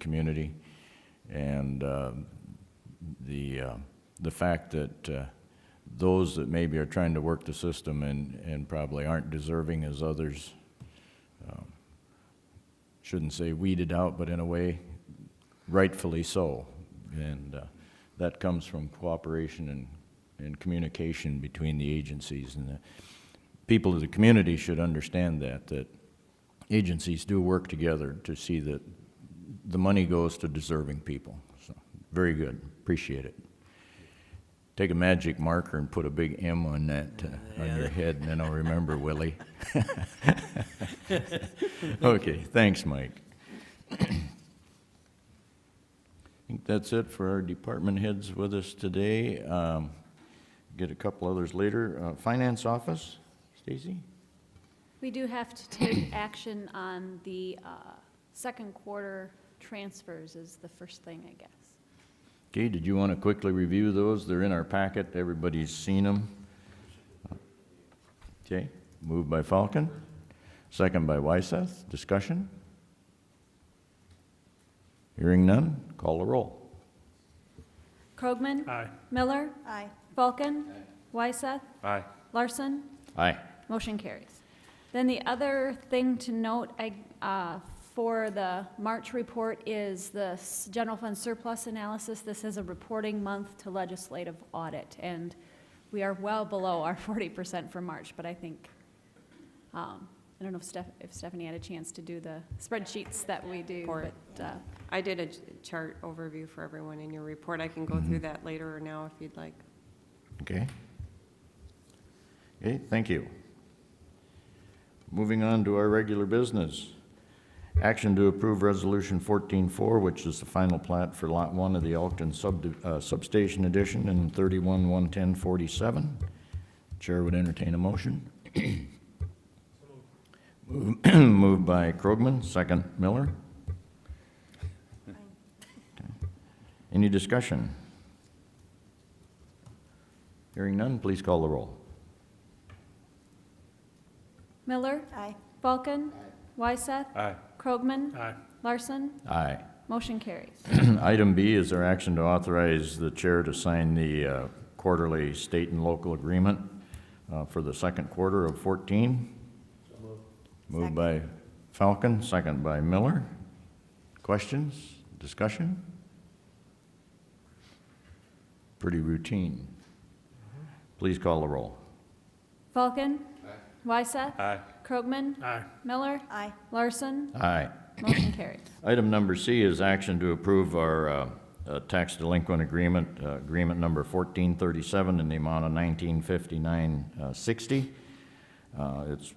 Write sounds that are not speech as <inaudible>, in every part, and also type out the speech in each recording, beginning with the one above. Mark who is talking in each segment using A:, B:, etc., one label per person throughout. A: community. And um, the, uh, the fact that uh, those that maybe are trying to work the system and, and probably aren't deserving as others, um, shouldn't say weeded out, but in a way, rightfully so. And uh, that comes from cooperation and, and communication between the agencies. And the people of the community should understand that, that agencies do work together to see that the money goes to deserving people. So, very good, appreciate it. Take a magic marker and put a big M on that, uh, on your head, and then I'll remember, Willie. <laughs> Okay, thanks, Mike. <clears throat> I think that's it for our department heads with us today. Um, Get a couple others later. Uh, Finance Office, Stacy?
B: We do have to take action on the uh, second quarter transfers is the first thing, I guess.
A: Okay, did you want to quickly review those? They're in our packet, everybody's seen them. Okay, moved by Falcon, second by Wyseth, discussion? Hearing none, call the roll.
B: Krogman?
C: Aye.
B: Miller? Aye. Falcon? Wyseth?
C: Aye.
B: Larson?
A: Aye.
B: Motion carries. Then the other thing to note I, uh, for the March report is the s- general fund surplus analysis. This is a reporting month to legislative audit, and we are well below our <laughs> 40% for March, but I think, um, I don't know if Steph- if Stephanie had a chance to do the spreadsheets that we do,
D: Report.
B: but uh,
D: I did a ch- chart overview for everyone in your report. I can go through that later or now if you'd like.
A: Okay. Okay, thank you. Moving on to our regular business. Action to approve Resolution 14-4, which is the final plat for Lot 1 of the Elkton subdi- uh, Substation Addition in 31-110-47. Chair would entertain a motion. <clears throat> Move- Moved by Krogman, second Miller. Any discussion? Hearing none, please call the roll.
B: Miller? Aye. Falcon? Aye. Wyseth?
C: Aye.
B: Krogman?
C: Aye.
B: Larson?
A: Aye.
B: Motion carries.
A: <clears throat> Item B is there action to authorize the chair to sign the uh, quarterly state and local agreement uh, for the second quarter of 14. Moved by Falcon, second by Miller. Questions, discussion? Pretty routine. Please call the roll.
B: Falcon? Aye. Wyseth?
C: Aye.
B: Krogman?
C: Aye.
B: Miller? Aye. Larson?
A: Aye.
B: Motion carried.
A: Item number C is action to approve our uh, uh, tax delinquent agreement, uh, agreement number 1437 in the amount of 1959.60. Uh, It's,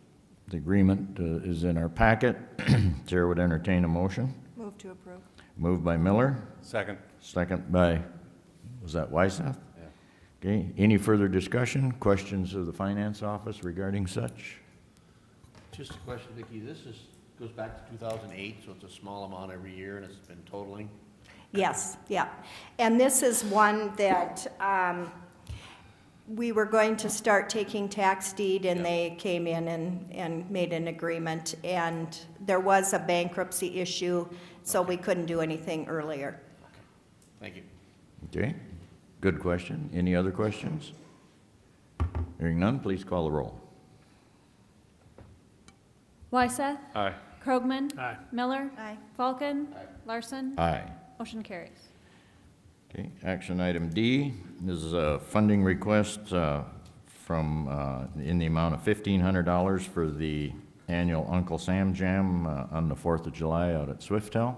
A: the agreement uh, is in our packet. <clears throat> Chair would entertain a motion.
D: Move to approve.
A: Moved by Miller,
C: Second.
A: second by, was that Wyseth? Okay, any further discussion, questions of the finance office regarding such?
E: Just a question, Vicki, this is, goes back to 2008, so it's a small amount every year, and it's been totaling.
F: Yes, yeah. And this is one that um, we were going to start taking tax deed, and they came in and, and made an agreement. And there was a bankruptcy issue, so we couldn't do anything earlier.
E: Thank you.
A: Okay, good question. Any other questions? Hearing none, please call the roll.
B: Wyseth?
C: Aye.
B: Krogman?
C: Aye.
B: Miller?
F: Aye.
B: Falcon? Larson?
A: Aye.
B: Motion carries.
A: Okay, action item D is a funding request uh, from, uh, in the amount of $1,500 for the annual Uncle Sam Jam uh, on the 4th of July out at Swiftel.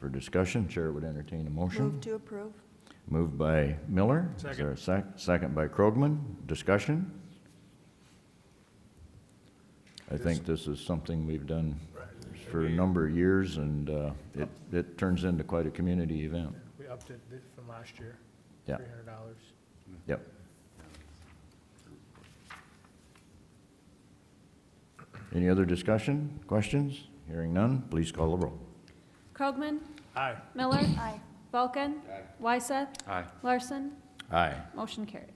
A: For discussion, Chair would entertain a motion.
F: Move to approve.
A: Moved by Miller. Is
C: Second.
A: there a sec- Second by Krogman. Discussion? I think this is something we've done for a number of years, and uh, it, it turns into quite a community event.
G: We upped it th- from last year.
A: Yeah.
G: Three hundred dollars.
A: Yep. Any other discussion, questions? Hearing none, please call the roll.
B: Krogman?
G: Aye.
B: Miller? Aye. Falcon? Wyseth?
C: Aye.
B: Larson?
A: Aye.
B: Motion carries.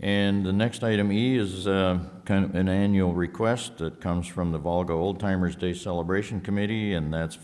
A: And the next item E is uh, kind of an annual request that comes from the Volga Old Timers Day Celebration Committee, and that's